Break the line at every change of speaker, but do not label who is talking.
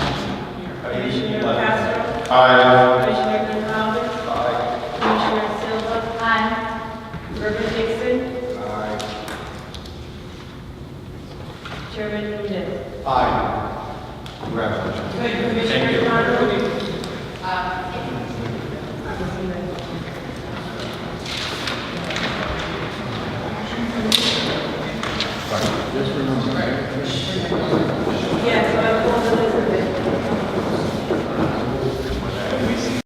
Commissioner Castro.
Aye.
Commissioner Gonzalez. Commissioner Silva. Reverend Dixon. Chairman Hernandez.
Aye. Congratulations.
Commissioner Conrad.